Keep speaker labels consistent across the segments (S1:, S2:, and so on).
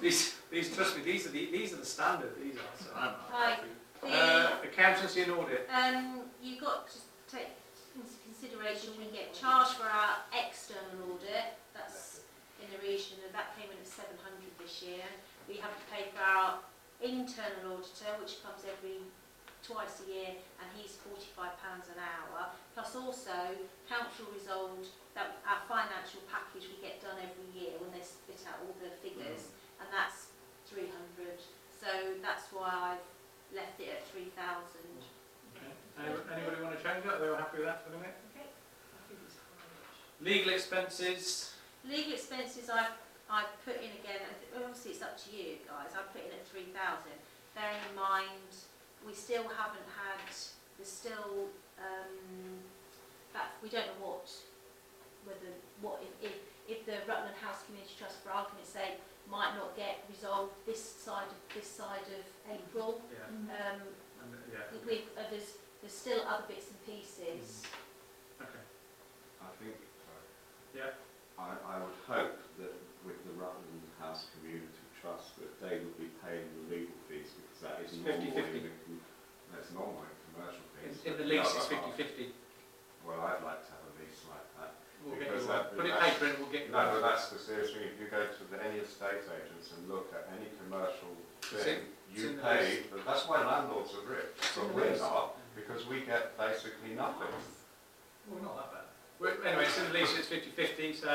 S1: These, these, trust me, these are the, these are the standard, these are, so I'm
S2: Right.
S1: happy.
S2: The,
S1: Uh, accountancy and audit,
S2: um, you've got to take into consideration we get charged for our external audit. That's in the region, and that came in at 700 this year. We have to pay for our internal auditor, which comes every twice a year, and he's £45 an hour. Plus also, council resolved that our financial package we get done every year when they spit out all the figures, and that's 300. So that's why I've left it at 3,000.
S1: okay. Anyone- Anybody want to change that? They were happy with that for the minute?
S2: Okay.
S1: Legal expenses,
S2: Legal expenses I've, I've put in again, I think- well, obviously it's up to you guys, I've put in at 3,000. Bearing in mind, we still haven't had, there's still, um, that, we don't know what, whether, what, if, if, if the Rutland House Community Trust, for argument's sake, might not get resolved this side of, this side of April,
S1: yeah,
S2: um,
S1: and, yeah,
S2: with, uh, there's, there's still other bits and pieces.
S1: okay.
S3: I think,
S1: Yeah.
S3: I, I would hope that with the Rutland House Community Trust, that they would be paying the legal fees, because that is
S1: It's 50-50.
S3: normally, in a- that's normally commercial fees.
S1: In, in the
S3: but
S1: lease
S3: other
S1: it's
S3: half-
S1: 50-50.
S3: Well, I'd like to have a lease like that.
S1: We'll get
S3: Because
S1: you one.
S3: that-
S1: Put it
S3: that's-
S1: paper and we'll get you
S3: No, but
S1: one.
S3: that's the serious thing, if you go to the, any estate agents and look at any commercial
S1: It's
S3: thing,
S1: in- it's in
S3: you
S1: the
S3: pay, but that's why landlords are rich,
S1: It's in
S3: but
S1: the
S3: we're
S1: lease.
S3: not, because we get basically nothing.
S1: Well, not that bad. We're, anyway, it's in the lease it's 50-50, so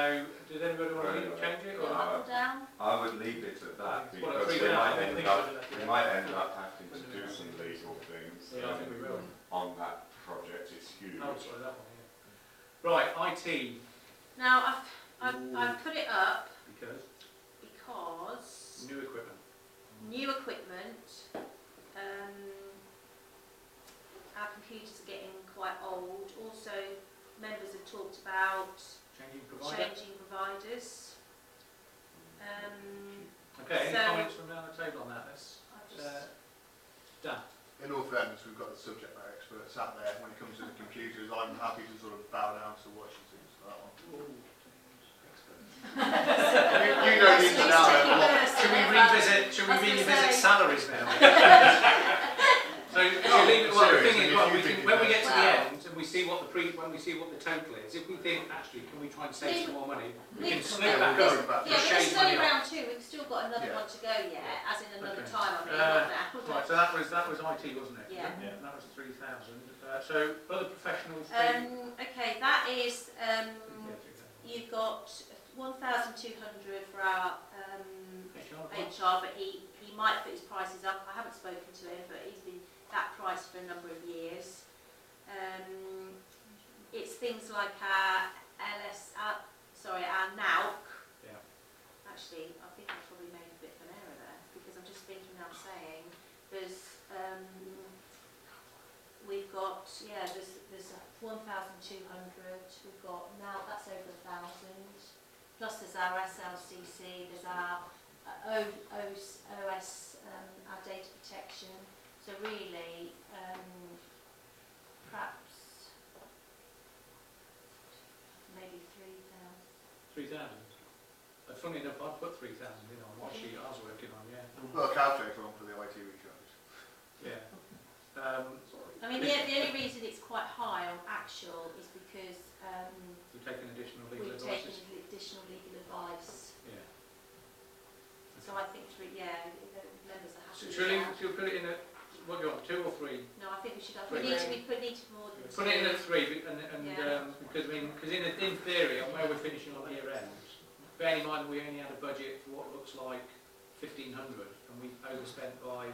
S1: does anybody want to
S3: Right, right.
S1: change it? Or
S2: Go up or down?
S3: I would leave it at that,
S1: Well, at
S3: because
S1: three
S3: they
S1: now, I
S3: might
S1: don't
S3: end
S1: think
S3: up
S1: we'll do that,
S3: We
S1: yeah.
S3: might end up having to do some legal things
S1: Yeah, I think we will.
S3: um, on that project, it's huge.
S1: Oh, sorry, that one, yeah. Right, IT,
S2: Now, I've, I've,
S1: Ooh.
S2: I've put it up
S1: because
S2: because
S1: new equipment.
S2: new equipment, um, our computers are getting quite old. Also, members have talked about
S1: Changing provider.
S2: changing providers. Um,
S1: Okay, any
S2: So-
S1: comments from down the table on that? Let's,
S2: I've
S1: uh,
S2: just,
S1: Dan.
S4: In all fairness, we've got the subject matter experts out there. When it comes to the computers, I'm happy to sort of bow down to what she thinks of that one. You, you know the ins and outs of what.
S1: uh, Should we
S2: Well,
S1: revisit, should we
S2: I was gonna
S1: revisit
S2: say-
S1: salaries now? So, if you leave it- well, the
S4: serious,
S1: thing
S4: if
S1: is,
S4: you
S1: well, we
S4: think
S1: can,
S4: it
S1: when we get
S4: does.
S1: to the
S2: Well.
S1: end and we see what the pre, when we see what the total is, if we think, actually, can we try and save some more money? We can
S2: Leave-
S1: snip
S2: Yeah,
S1: that
S2: we'll
S1: up.
S4: go back.
S2: Yeah, but
S1: Shave
S2: it's
S1: money
S2: only
S1: off.
S2: round two. We've still got another
S4: Yeah.
S2: one to go yet, as in another
S1: Okay.
S2: time. I
S1: Uh,
S2: mean, not now.
S1: Right, so that was, that was IT, wasn't it?
S2: Yeah.
S3: Yeah.
S1: That was three thousand. Uh, so, other professionals.
S2: Um, okay, that is, um, you've got 1,200 for our um, HR, but he, he might put his prices up. I haven't spoken to him, but he's been that price for a number of years. Um, it's things like our LS, our, sorry, our NAUC.
S1: Yeah.
S2: Actually, I think I probably made a bit of an error there because I'm just thinking now saying there's um, we've got yeah there's there's 1,200. We've got now that's over a thousand. Plus there's our SLCC. There's our uh, O, OS, OS um, our data protection. So really, um, perhaps maybe three thousand.
S1: Three thousand. Uh, funny enough, I put three thousand in on what sheet I was working on, yeah.
S4: We've got a calculator on for the IT recharge.
S1: Yeah. Um,
S2: I mean, the, the only reason it's quite high on actual is because um,
S1: we've taken additional legal
S2: we've taken
S1: advices.
S2: additional legal advice.
S1: Yeah.
S2: So I think three, yeah, the members are happy.
S1: So
S2: with
S1: Should we,
S2: that.
S1: should we put it in at, what do you want, two or three?
S2: No, I think we should. I
S1: Three.
S2: think we need to be put need to more than
S1: Put it in
S2: two.
S1: at three, be- and, and,
S2: Yeah.
S1: um, because I mean, because in, in theory, on where we're finishing on year end, bearing in mind we only had a budget for what looks like fifteen hundred, and we overspent by,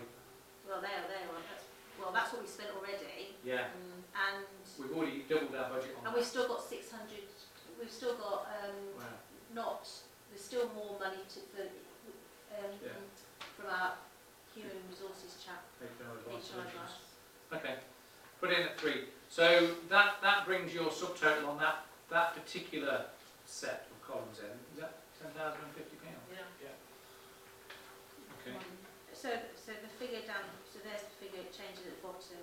S2: Well, there, there. well, That's, well, that's what we spent already,
S1: yeah,
S2: um, and
S1: we've already doubled our budget on
S2: and
S1: that.
S2: we've still got six hundred. We've still got um,
S1: Wow.
S2: not, there's still more money to, for, um,
S1: Yeah.
S2: from our human resources chap,
S1: HR
S2: HR
S1: advice solutions.
S2: advice.
S1: Okay, put in at three. So that, that brings your subtotal on that, that particular set of columns in, is that ten thousand and fifty pounds? Okay,
S2: Um, So, so the figure down, so there's the figure, it changes at the bottom,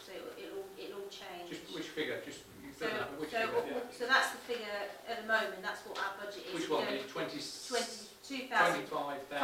S2: so it'll, it'll, it'll all change.
S1: just which figure, just, you've
S2: So,
S1: done that, but which
S2: so,
S1: figure?
S2: what- what- so that's the figure at the moment, that's what our budget is.
S1: Which one,
S2: You know,
S1: the twenty,
S2: Twenty-two thousand
S1: twenty-five thousand?